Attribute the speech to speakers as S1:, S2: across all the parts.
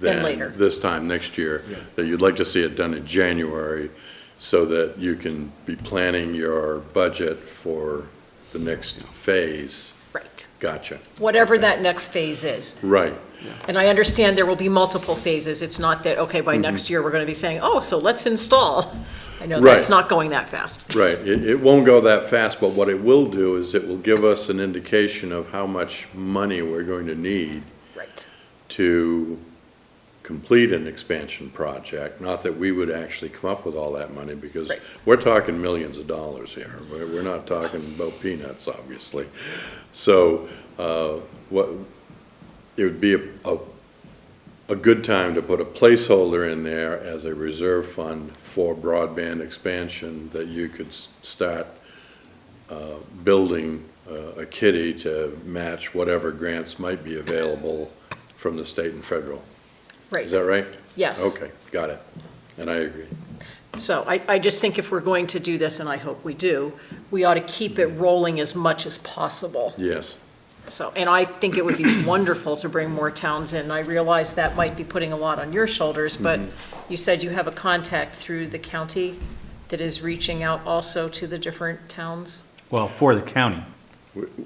S1: than
S2: later.
S1: this time next year, that you'd like to see it done in January so that you can be planning your budget for the next phase.
S2: Right.
S1: Gotcha.
S2: Whatever that next phase is.
S1: Right.
S2: And I understand there will be multiple phases. It's not that, okay, by next year, we're going to be saying, oh, so let's install. I know that's
S1: Mm-hmm. Right.
S2: not going that fast.
S1: Right, it, it won't go that fast, but what it will do is it will give us an indication of how much money we're going to need
S2: Right.
S1: to complete an expansion project. Not that we would actually come up with all that money, because
S2: Right.
S1: we're talking millions of dollars here. We're, we're not talking about peanuts, obviously. So, uh, what, it would be a, a, a good time to put a placeholder in there as a reserve fund for broadband expansion, that you could s- start uh, building uh, a kitty to match whatever grants might be available from the state and federal.
S2: Right.
S1: Is that right?
S2: Yes.
S1: Okay, got it. And I agree.
S2: So I, I just think if we're going to do this, and I hope we do, we ought to keep it rolling as much as possible.
S1: Yes.
S2: So, and I think it would be wonderful to bring more towns in. I realize that might be putting a lot on your shoulders, but
S1: Mm-hmm.
S2: you said you have a contact through the county that is reaching out also to the different towns?
S3: Well, for the county,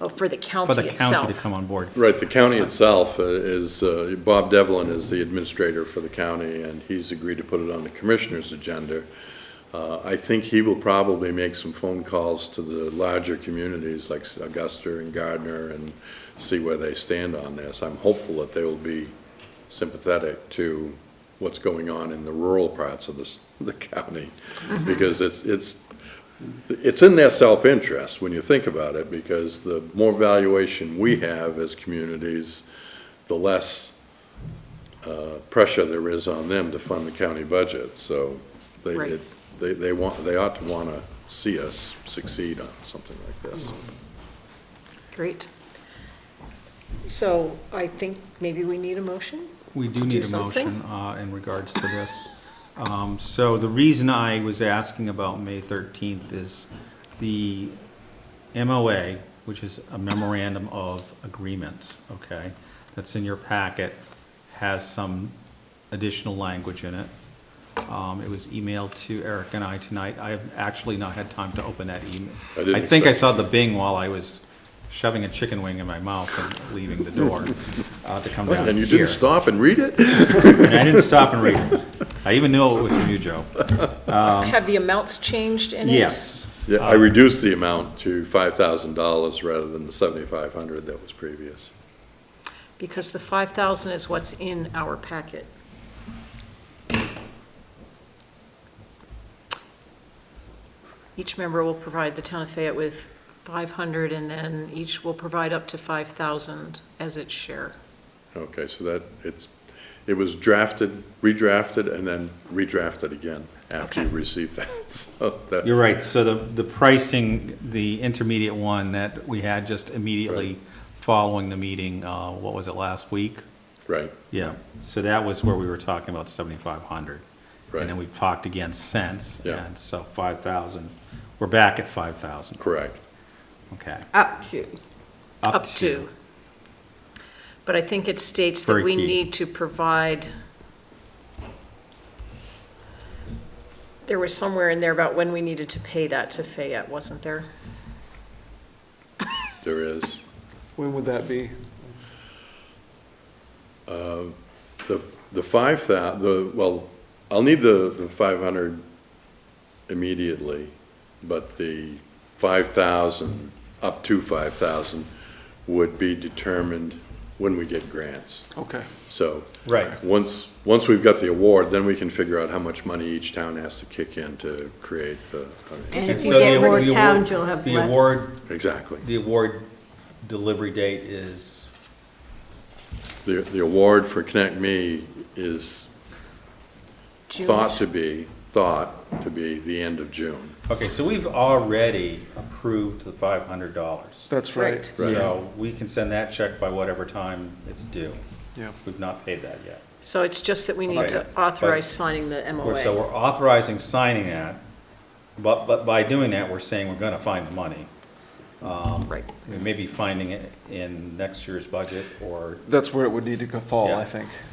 S2: Oh, for the
S3: for
S2: county
S3: the county to come
S2: itself.
S3: on board.
S1: Right, the county itself uh, is, uh, Bob Devlin is the administrator for the county, and he's agreed to put it on the commissioner's agenda. Uh, I think he will probably make some phone calls to the larger communities like Augusta and Gardner and see where they stand on this. I'm hopeful that they will be sympathetic to what's going on in the rural parts of this, the county, because it's, it's, it's in their self-interest when you think about it, because the more valuation we have as communities, the less uh, pressure there is on them to fund the county budget. So they,
S2: Right.
S1: it- they, they want, they ought to want to see us succeed on something like this.
S2: Great. So I think maybe we need a motion?
S3: We
S2: to
S3: do
S2: do
S3: need a
S2: something?
S3: motion uh, in regards to this. Um, So the reason I was asking about May 13th is the MOA, which is a memorandum of agreement, okay, that's in your packet, has some additional language in it. Um, It was emailed to Eric and I tonight. I have actually not had time to open that email.
S1: I didn't
S3: I think I
S1: expect-
S3: saw the bing while I was shoving a chicken wing in my mouth and leaving the door uh, to come down here.
S1: And you didn't stop and read it?
S3: And I didn't stop and read it. I even knew it was from you, Joe.
S2: Have the amounts changed in it?
S3: Um, Yes.
S1: Yeah, I reduced the amount to five thousand dollars rather than the seventy-five hundred that was previous.
S2: Because the 5,000 is what's in our packet. Each member will provide the town of Fayette with 500, and then each will provide up to 5,000 as its share.
S1: Okay, so that, it's, it was drafted, redrafted, and then redrafted again after you
S2: Okay.
S1: received that, so that.
S3: You're right. So the, the pricing, the intermediate one that we had just immediately following the meeting, uh, what was it, last week?
S1: Right,
S3: Yeah. So that was where we were talking about seventy-five hundred.
S1: Right.
S3: And then we've talked again since.
S1: Yeah.
S3: And so five thousand, we're back at five thousand.
S1: correct.
S3: Okay.
S4: Up to.
S2: Up to. But I think it states that
S3: Very
S2: we
S3: key.
S2: need to provide, there was somewhere in there about when we needed to pay that to Fayette, wasn't there?
S1: There is.
S5: When would that be?
S1: The, the five thou, the, well, I'll need the, the five hundred immediately, but the five thousand, up to five thousand, would be determined when we get grants.
S5: Okay.
S1: So.
S3: Right.
S1: Once, once we've got the award, then we can figure out how much money each town has to kick in to create the,
S4: And
S3: And
S4: if you
S3: so the
S4: get more
S3: award- the award-
S4: towns, you'll have
S3: The
S4: less.
S3: award,
S1: exactly.
S3: the award delivery date is
S1: The, the award for Connect Me is thought to be, thought to be the end of June.
S3: Okay, so we've already approved the five hundred dollars.
S5: That's right.
S1: Right.
S3: So we can send that check by whatever time it's due.
S5: Yeah.
S3: We've not paid that yet.
S2: So it's just that we need to
S3: Okay.
S2: authorize signing the
S3: We're- So
S2: MOA.
S3: we're authorizing signing that, but, but by doing that, we're saying we're gonna find the money. Um,
S2: Right.
S3: We may be finding it in next year's budget or
S5: That's where it would need to go fall,
S3: Yeah.
S5: I think.